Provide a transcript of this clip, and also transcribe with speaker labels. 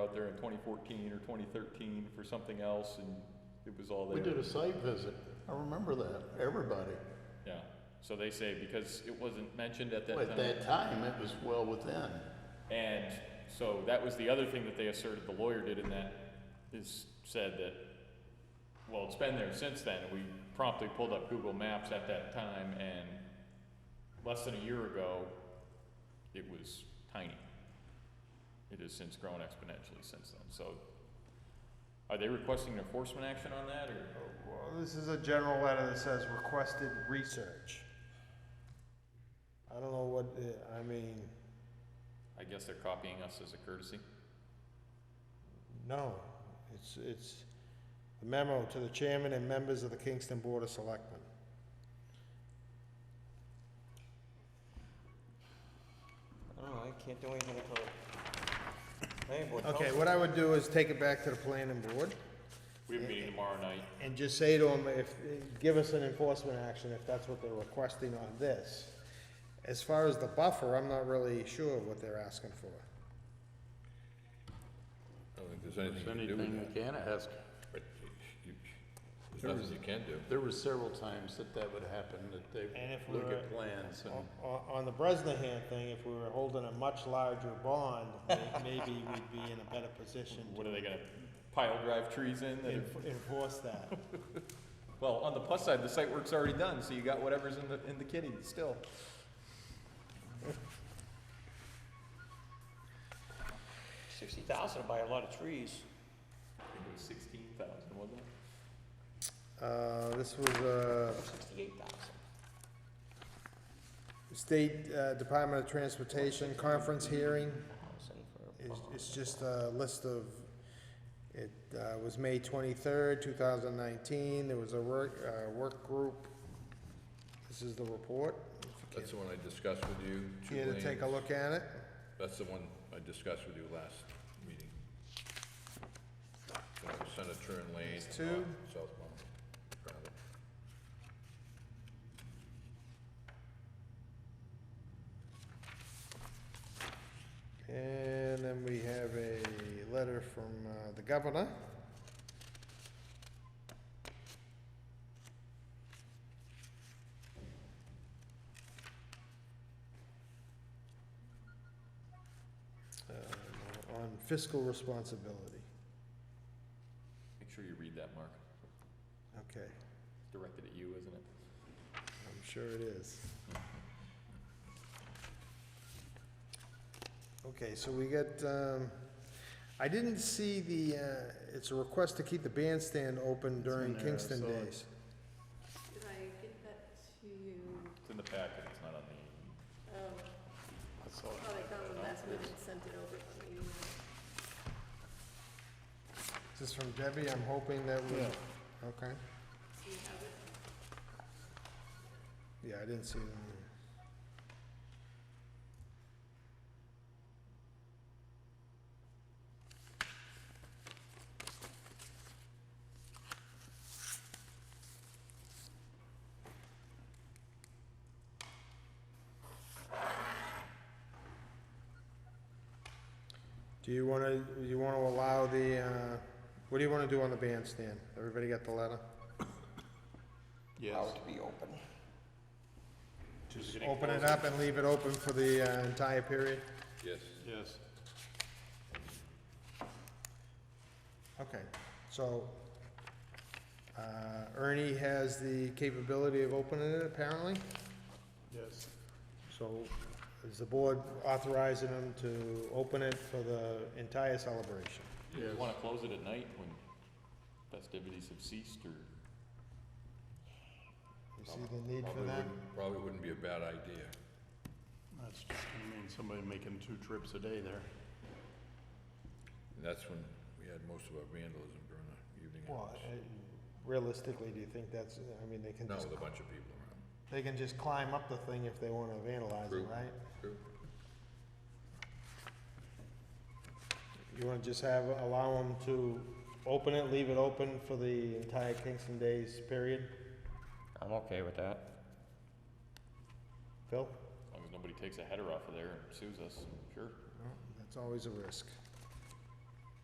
Speaker 1: out there in twenty fourteen or twenty thirteen for something else and it was all there.
Speaker 2: We did a site visit. I remember that, everybody.
Speaker 1: Yeah, so they say because it wasn't mentioned at that time.
Speaker 2: At that time, it was well within.
Speaker 1: And so that was the other thing that they asserted the lawyer did in that is said that, well, it's been there since then. We promptly pulled up Google Maps at that time and less than a year ago, it was tiny. It has since grown exponentially since then. So are they requesting enforcement action on that or?
Speaker 3: Well, this is a general letter that says requested research. I don't know what, uh, I mean,
Speaker 1: I guess they're copying us as a courtesy.
Speaker 3: no, it's, it's a memo to the chairman and members of the Kingston Board of Selectmen.
Speaker 4: I don't know, I can't do anything until the planning board tells
Speaker 3: Okay,
Speaker 4: me.
Speaker 3: what I would do is take it back to the planning board
Speaker 1: We have a meeting tomorrow night.
Speaker 3: and just say to them, if, give us an enforcement action if that's what they're requesting on this. As far as the buffer, I'm not really sure what they're asking for.
Speaker 5: I don't think there's anything you can do with
Speaker 6: you can ask.
Speaker 5: that. You- There's nothing you can do.
Speaker 2: There were several times that that would happen, that they
Speaker 3: And if
Speaker 2: look
Speaker 3: we're- Oh,
Speaker 2: at plans and.
Speaker 3: On, on the Bresnahan thing, if we were holding a much larger bond, may- maybe we'd be in a better position
Speaker 1: What are they gonna pile drive trees in
Speaker 3: to
Speaker 1: that are
Speaker 3: enf- enforce that.
Speaker 1: Well, on the plus side, the site work's already done, so you got whatever's in the, in the kitty still.
Speaker 4: Sixty thousand to buy a lot of trees.
Speaker 1: I think it was sixteen thousand, wasn't it?
Speaker 3: Uh, this was a
Speaker 4: Sixty-eight thousand.
Speaker 3: State uh, Department of Transportation conference hearing.
Speaker 4: Thousand for a
Speaker 3: It's,
Speaker 4: bond.
Speaker 3: it's just a list of, it uh, was May twenty-third, two thousand nineteen. There was a work, uh, work group. This is the report. If you
Speaker 5: That's the one I discussed with you. two
Speaker 3: Care to take a
Speaker 5: lanes.
Speaker 3: look at it?
Speaker 5: That's the one I discussed with you last meeting. So, Center turn lane.
Speaker 3: These two?
Speaker 5: uh, Southbound. travel.
Speaker 3: And then we have a letter from uh, the governor. Um, On fiscal responsibility,
Speaker 1: Make sure you read that, Mark.
Speaker 3: okay,
Speaker 1: It's directed at you, isn't it?
Speaker 3: I'm sure it is. Okay, so we got, um, I didn't see the, uh, it's a request to keep the bandstand open during
Speaker 2: there, I
Speaker 3: Kingston
Speaker 2: saw it.
Speaker 3: days.
Speaker 7: Did I get that to you?
Speaker 1: It's in the packet, it's not on the,
Speaker 7: Um, I thought I got one last minute and sent it over on the email.
Speaker 3: This is from Debbie, I'm hoping that we, okay,
Speaker 7: Do you have it?
Speaker 3: yeah, I didn't see it. on there. Do you wanna, you wanna allow the, uh, what do you wanna do on the bandstand? Everybody got the letter?
Speaker 4: Allowed to be open.
Speaker 3: Just open it up and leave it open for the uh, entire period?
Speaker 5: Yes.
Speaker 2: Yes.
Speaker 3: Okay, so, uh, Ernie has the capability of opening it apparently,
Speaker 2: Yes.
Speaker 3: so is the board authorizing him to open it for the entire celebration?
Speaker 1: you wanna close it at night when festivities have ceased or?
Speaker 3: You see the need for
Speaker 5: Probably
Speaker 3: that?
Speaker 5: wouldn't, probably wouldn't be a bad idea.
Speaker 2: That's just gonna mean somebody making two trips a day there.
Speaker 5: And that's when we had most of our vandalism during the evening
Speaker 3: Well,
Speaker 5: hours.
Speaker 3: uh, realistically, do you think that's, I mean, they can
Speaker 5: Not
Speaker 3: just,
Speaker 5: with a bunch of people around.
Speaker 3: they can just climb up the thing if they wanna vandalize it,
Speaker 5: True.
Speaker 3: right?
Speaker 5: True.
Speaker 3: You wanna just have, allow them to open it, leave it open for the entire Kingston Days period?
Speaker 4: I'm okay with that.
Speaker 3: Phil?
Speaker 1: As long as nobody takes a header off of there and sues us, sure.
Speaker 3: That's always a risk.